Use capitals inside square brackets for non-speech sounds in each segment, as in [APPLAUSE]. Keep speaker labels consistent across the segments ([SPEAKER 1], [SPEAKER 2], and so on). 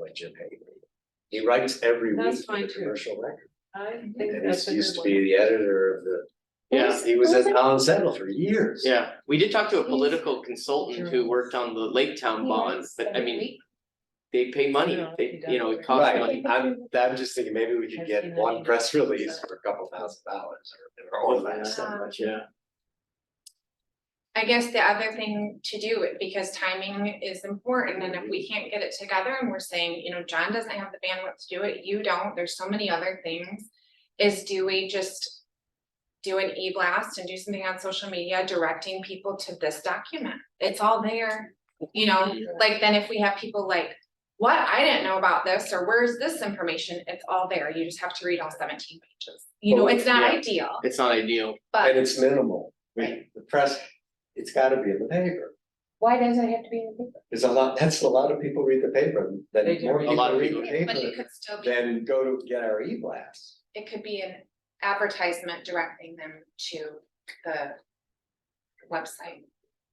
[SPEAKER 1] by Jim Hagley. He writes every week
[SPEAKER 2] That's
[SPEAKER 1] for the
[SPEAKER 2] fine, too.
[SPEAKER 1] commercial record,
[SPEAKER 2] I think
[SPEAKER 1] and
[SPEAKER 2] that's
[SPEAKER 1] he
[SPEAKER 2] a
[SPEAKER 1] used to
[SPEAKER 2] good
[SPEAKER 1] be
[SPEAKER 2] one.
[SPEAKER 1] the editor of the,
[SPEAKER 3] Yeah,
[SPEAKER 1] he was at Town Sentinel for years.
[SPEAKER 3] yeah, we did talk to a political consultant who worked on the Lake Town bond, but I mean, they pay money,
[SPEAKER 2] Yeah,
[SPEAKER 3] they,
[SPEAKER 2] he
[SPEAKER 3] you know, it
[SPEAKER 2] does.
[SPEAKER 3] costs
[SPEAKER 1] Right.
[SPEAKER 3] money.
[SPEAKER 1] I'm, I'm just thinking, maybe we could
[SPEAKER 2] I've
[SPEAKER 1] get
[SPEAKER 2] seen that
[SPEAKER 1] one
[SPEAKER 2] email. Ah.
[SPEAKER 1] press release for a couple thousand dollars or, or less.
[SPEAKER 3] So much, yeah.
[SPEAKER 4] I guess the other thing to do, because timing is important, and if we can't get it together and we're saying, you know, John doesn't have the bandwidth to do it, you don't, there's so many other things. Is do we just do an e-blast and do something on social media directing people to this document? It's all there, you know, like then if we have people like, what, I didn't know about this, or where's this information? It's all there, you just have to read all seventeen pages. You know, it's not
[SPEAKER 3] Yeah.
[SPEAKER 4] ideal,
[SPEAKER 3] It's not ideal.
[SPEAKER 4] but.
[SPEAKER 1] And it's minimal,
[SPEAKER 4] Right.
[SPEAKER 1] the press, it's gotta be in the paper,
[SPEAKER 4] Why does it have to be in the paper?
[SPEAKER 1] there's a lot, that's a lot of people read the paper, then
[SPEAKER 2] They do
[SPEAKER 1] more
[SPEAKER 2] read
[SPEAKER 3] it. A lot
[SPEAKER 1] people
[SPEAKER 3] of
[SPEAKER 1] read the
[SPEAKER 3] people.
[SPEAKER 4] But it
[SPEAKER 1] paper
[SPEAKER 4] could still be,
[SPEAKER 1] than go to get our e-blast.
[SPEAKER 4] it could be an advertisement directing them to the website.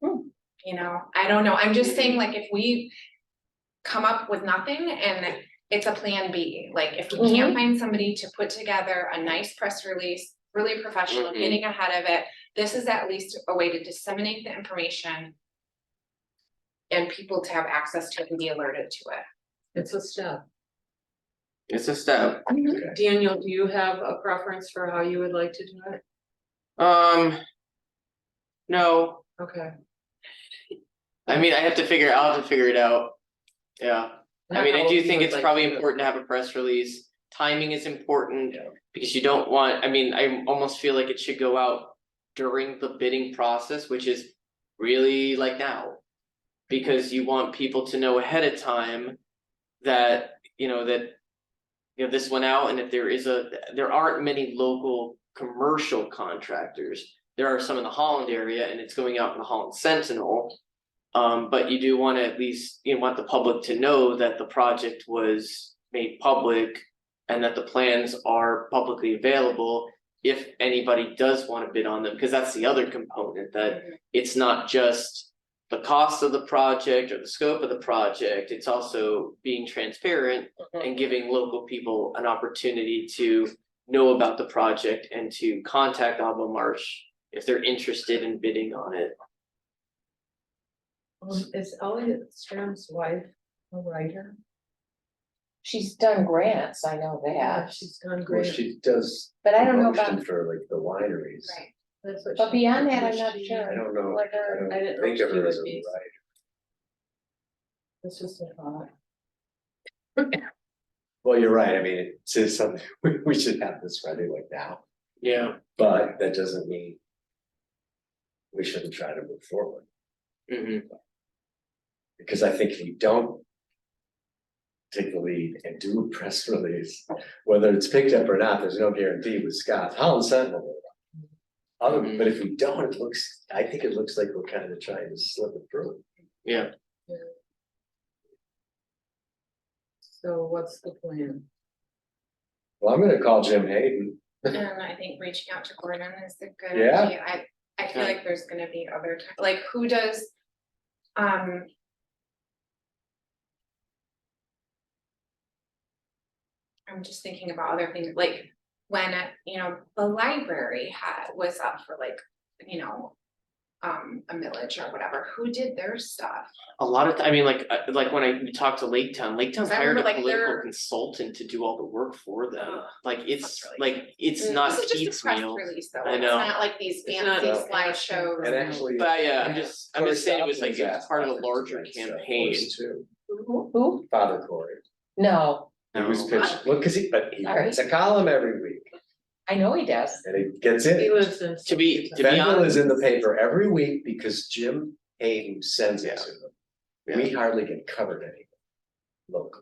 [SPEAKER 5] Hmm.
[SPEAKER 4] You know, I don't know, I'm just saying
[SPEAKER 5] Mm-hmm.
[SPEAKER 4] like if we come up with nothing and it's a plan B, like if we
[SPEAKER 5] Mm-hmm.
[SPEAKER 4] can't find somebody to put together a nice press release, really professional,
[SPEAKER 5] Mm-hmm.
[SPEAKER 3] Mhm.
[SPEAKER 4] getting ahead of it, this is at least a way to disseminate the information and people to have access to it and be alerted to it.
[SPEAKER 2] It's a step.
[SPEAKER 3] It's a step.
[SPEAKER 2] Daniel, do you have a preference for how you would like to do it?
[SPEAKER 3] Um. No,
[SPEAKER 2] Okay.
[SPEAKER 3] I mean, I have to figure, I'll have to figure it out. Yeah, I mean, I do think it's probably important to have a press release. Timing is important
[SPEAKER 1] Yeah.
[SPEAKER 3] because you don't want, I mean, I almost feel like it should go out during the bidding process, which is really like now. Because you want people to know ahead of time that, you know, that you know, this went out and if there is a, there aren't many local commercial contractors. There are some in the Holland area and it's going out in the Holland Sentinel. Um, but you do want to at least, you want the public to know that the project was made public and that the plans are publicly available if anybody does want to bid on them, because that's the other component that it's not just the cost of the project or the scope of the project, it's also being transparent
[SPEAKER 4] Mm-hmm.
[SPEAKER 3] and giving local people an opportunity to know about the project and to contact Alba Marsh if they're interested in bidding on it.
[SPEAKER 2] Um, Is Elliot Stram's wife a writer?
[SPEAKER 5] She's done grants, I know that,
[SPEAKER 2] She's done
[SPEAKER 1] Well,
[SPEAKER 2] great.
[SPEAKER 1] she does.
[SPEAKER 5] but I don't know
[SPEAKER 1] promotion
[SPEAKER 5] about,
[SPEAKER 1] For like the wineries.
[SPEAKER 4] Oh, Right.
[SPEAKER 2] That's what
[SPEAKER 5] but
[SPEAKER 2] she-
[SPEAKER 5] beyond that, I'm
[SPEAKER 2] she-
[SPEAKER 5] not sure.
[SPEAKER 1] I don't know,
[SPEAKER 5] Like her-
[SPEAKER 1] I
[SPEAKER 2] I didn't
[SPEAKER 1] don't think
[SPEAKER 2] know
[SPEAKER 1] of
[SPEAKER 2] she
[SPEAKER 1] her
[SPEAKER 2] would
[SPEAKER 1] as a
[SPEAKER 2] be-
[SPEAKER 1] writer.
[SPEAKER 2] That's just a thought.
[SPEAKER 1] Well, you're right, I mean, it's it's something, [LAUGHS] we we should have this ready like now,
[SPEAKER 3] Yeah.
[SPEAKER 1] but that doesn't mean. We shouldn't try to move forward,
[SPEAKER 3] Mm-hmm.
[SPEAKER 1] because I think if you don't. Take the lead and do a press release, whether it's picked up or not, there's no guarantee with Scott, Holland Sentinel. will. Other,
[SPEAKER 2] Mm-hmm.
[SPEAKER 1] but if we don't, it looks, I think it looks like we're kind of trying to slip it through.
[SPEAKER 2] So what's the plan?
[SPEAKER 1] Well, I'm gonna call Jim Hayden,
[SPEAKER 4] And um, I think reaching out to Gordon is a good
[SPEAKER 1] Yeah.
[SPEAKER 4] idea. I, I feel
[SPEAKER 3] Okay.
[SPEAKER 4] like there's gonna be other, ti- like, who does? Um. I'm just thinking about other things, like when, uh, you know, the library had, was up for like, you know, um, a millage or whatever. Who did their stuff?
[SPEAKER 3] A lot of, I mean, like, uh, like when I talked to Lake Town, Lake Town's
[SPEAKER 4] I
[SPEAKER 3] hired
[SPEAKER 4] remember,
[SPEAKER 3] a
[SPEAKER 4] like,
[SPEAKER 3] political
[SPEAKER 4] their-
[SPEAKER 3] consultant to do all the work for them.
[SPEAKER 4] Ugh,
[SPEAKER 3] Like, it's,
[SPEAKER 4] really
[SPEAKER 3] like, it's
[SPEAKER 5] Mm,
[SPEAKER 3] not
[SPEAKER 4] This is just a
[SPEAKER 3] Pete's
[SPEAKER 4] press
[SPEAKER 3] meal.
[SPEAKER 4] release, though.
[SPEAKER 3] I
[SPEAKER 4] It's
[SPEAKER 3] know.
[SPEAKER 4] not like these
[SPEAKER 2] It's not
[SPEAKER 4] fancy
[SPEAKER 1] a-
[SPEAKER 4] slideshows.
[SPEAKER 1] and
[SPEAKER 2] Wow.
[SPEAKER 1] actually.
[SPEAKER 3] But yeah, I'm just, I'm just saying it was like,
[SPEAKER 1] Corey
[SPEAKER 3] it's part of a
[SPEAKER 1] Stopples
[SPEAKER 3] larger
[SPEAKER 1] asked that
[SPEAKER 3] campaign.
[SPEAKER 1] first too.
[SPEAKER 5] who,
[SPEAKER 1] Father Corey,
[SPEAKER 5] no,
[SPEAKER 1] he was
[SPEAKER 3] No.
[SPEAKER 1] pitching, well, cause he, but he
[SPEAKER 5] All right.
[SPEAKER 1] writes a column every week
[SPEAKER 5] I know he does.
[SPEAKER 1] and it gets
[SPEAKER 2] He
[SPEAKER 1] in.
[SPEAKER 2] lives in.
[SPEAKER 3] To be- to be
[SPEAKER 1] Fennel is in the paper every week because Jim Hayden sends it to them. We hardly get covered anymore locally.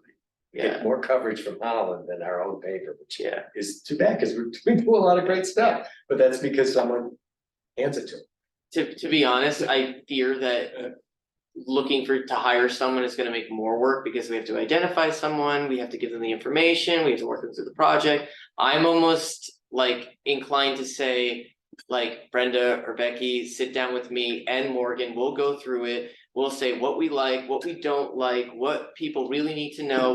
[SPEAKER 1] We
[SPEAKER 3] Yeah.
[SPEAKER 1] get more coverage from Holland than our own paper, which
[SPEAKER 3] Yeah,
[SPEAKER 1] is too bad, cause we, [LAUGHS] we do a lot of great stuff, but that's because someone hands it to them.
[SPEAKER 3] To to be honest, I fear that looking for to hire someone is gonna make more work because we have to identify someone, we have to give them the information, we have to work them through the project. I'm almost like inclined to say, like Brenda or Becky, sit down with me and Morgan, we'll go through it. We'll say what we like, what we don't like, what people really need to know,